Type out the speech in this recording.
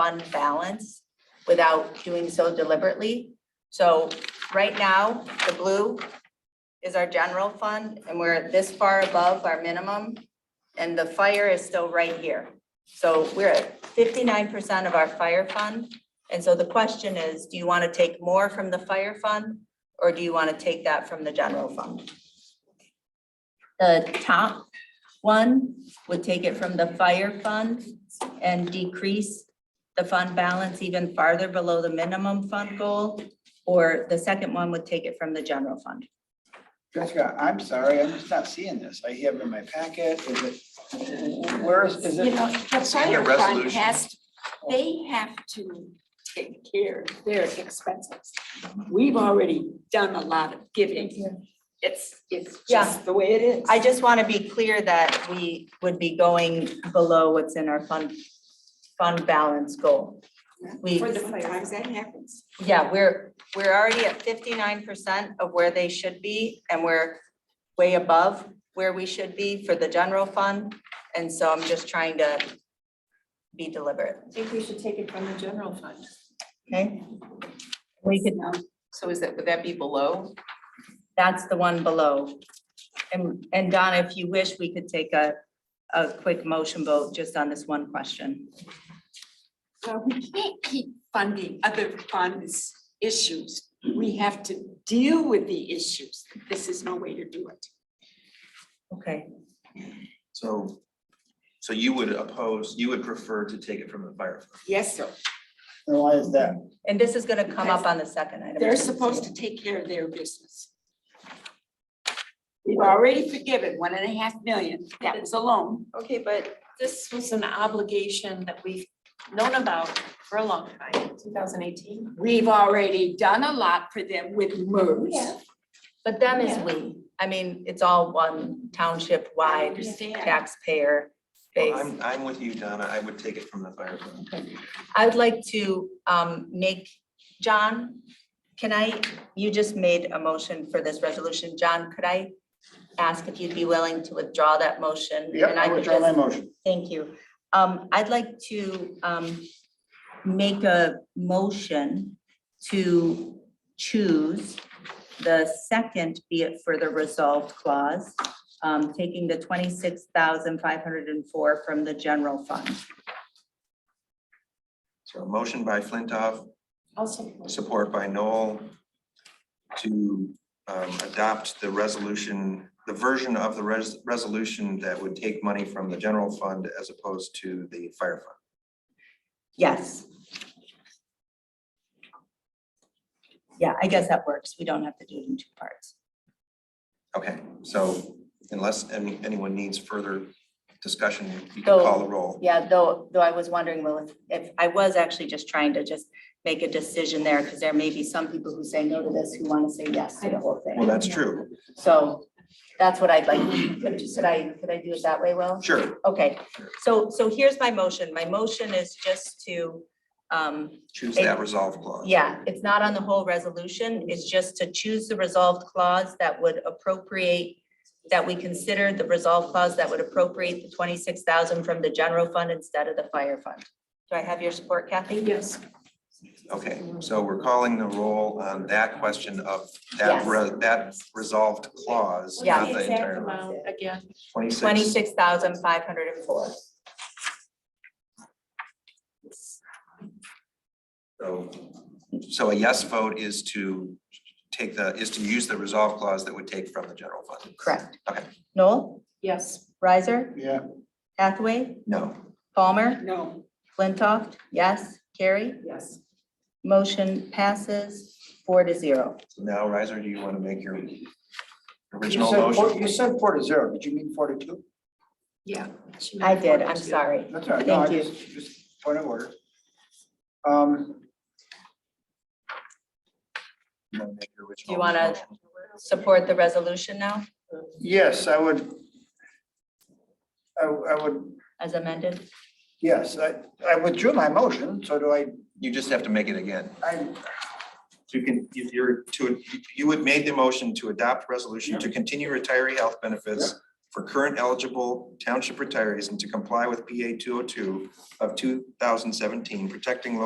fund balance without doing so deliberately. So right now, the blue is our general fund, and we're this far above our minimum, and the fire is still right here. So we're at fifty-nine percent of our fire fund, and so the question is, do you want to take more from the fire fund? Or do you want to take that from the general fund? The top one would take it from the fire fund and decrease the fund balance even farther below the minimum fund goal, or the second one would take it from the general fund. Jessica, I'm sorry, I'm just not seeing this. I have it in my packet. Is it, where is, is You know, it? the fire fund resolution. has, they have to take care of their expenses. We've already done a lot of giving. It's, it's Yeah. just the way it is. I just want to be clear that we would be going below what's in our fund, fund balance goal. we- For the sometimes that happens. Yeah, we're, we're already at fifty-nine percent of where they should be, and we're way above where we should be for the general fund. And so I'm just trying to be deliberate, I think we should take it from the general fund. okay? We could, So is that, would that be below? that's the one below. And, and Donna, if you wish, we could take a, a quick motion vote just on this one question. So we can't keep funding other funds issues. We have to deal with the issues. This is no way to do it. Okay. So, so you would oppose, you would prefer to take it from the fire fund? Yes, sir. And Why is that? And this is gonna come up on the second item. They're supposed to take care of their business. We've already forgiven one and a half million. That was a loan. Okay, but this was an obligation that we've known about for a long time, two thousand eighteen. We've already done a lot for them with MERS. But them is Yeah. we. I mean, it's all one I township-wide understand. taxpayer Well, base. I'm, I'm with you, Donna. I would take it from the fire fund. I would like to um make, John, can I, you just made a motion for this resolution. John, could I ask if you'd be willing to withdraw that motion? Yep, And I could withdraw my just- motion. Thank you. Um, I'd like to um make a motion to choose the second be it further resolved clause, um, taking the twenty-six thousand five hundred and four from the general fund. So a motion by Flintoff, Also. support by Noel to um, adopt the resolution, the version of the res- resolution that would take money from the general fund as opposed to the fire fund. Yes. Yeah, I guess that works. We don't have to do it in two parts. Okay, so unless any, anyone needs further discussion, you can So- call the roll. Yeah, though, though I was wondering, well, if- if, I was actually just trying to just make a decision there, because there may be some people who say no to this, who want to say yes to the whole Well, thing. that's true. So So that's what I'd like, could I, could I do it that way, Will? Sure, Okay, so, so here's my motion. My motion is just to, um, choose that resolve clause. Yeah, it's not on the whole resolution. It's just to choose the resolved clause that would appropriate, that we consider the resolved clause that would appropriate the twenty-six thousand from the general fund instead of the fire fund. Do I have your support, Kathy? Yes. Okay, so we're calling the roll on that question of that, Yes. re- that resolved clause, Yeah. not the entire amount. um, Again, twenty-six. Twenty-six thousand five hundred and four. So, so a yes vote is to take the, is to use the resolve clause that would take from the general fund. Correct. Okay. Noel, yes. Riser, Yeah, Hathaway, No, Palmer, No, Flintoff, yes, Carrie? Yes. Motion passes four to zero. So now Riser, do you want to make your you original said, four- motion? you said four to zero, did you mean four to two? Yeah. I did, I'm sorry. That's all right, no, I Thank you. just, just point of order. Um, Do you wanna- Support the resolution now yes, I would. I, I would, as amended? yes, I, I withdrew my motion, so do I, You just have to make it again. I, You can, you- you're to, you would made the motion to adopt resolution to continue retiree health benefits for current eligible township retirees and to comply with PA two oh two of two thousand seventeen, protecting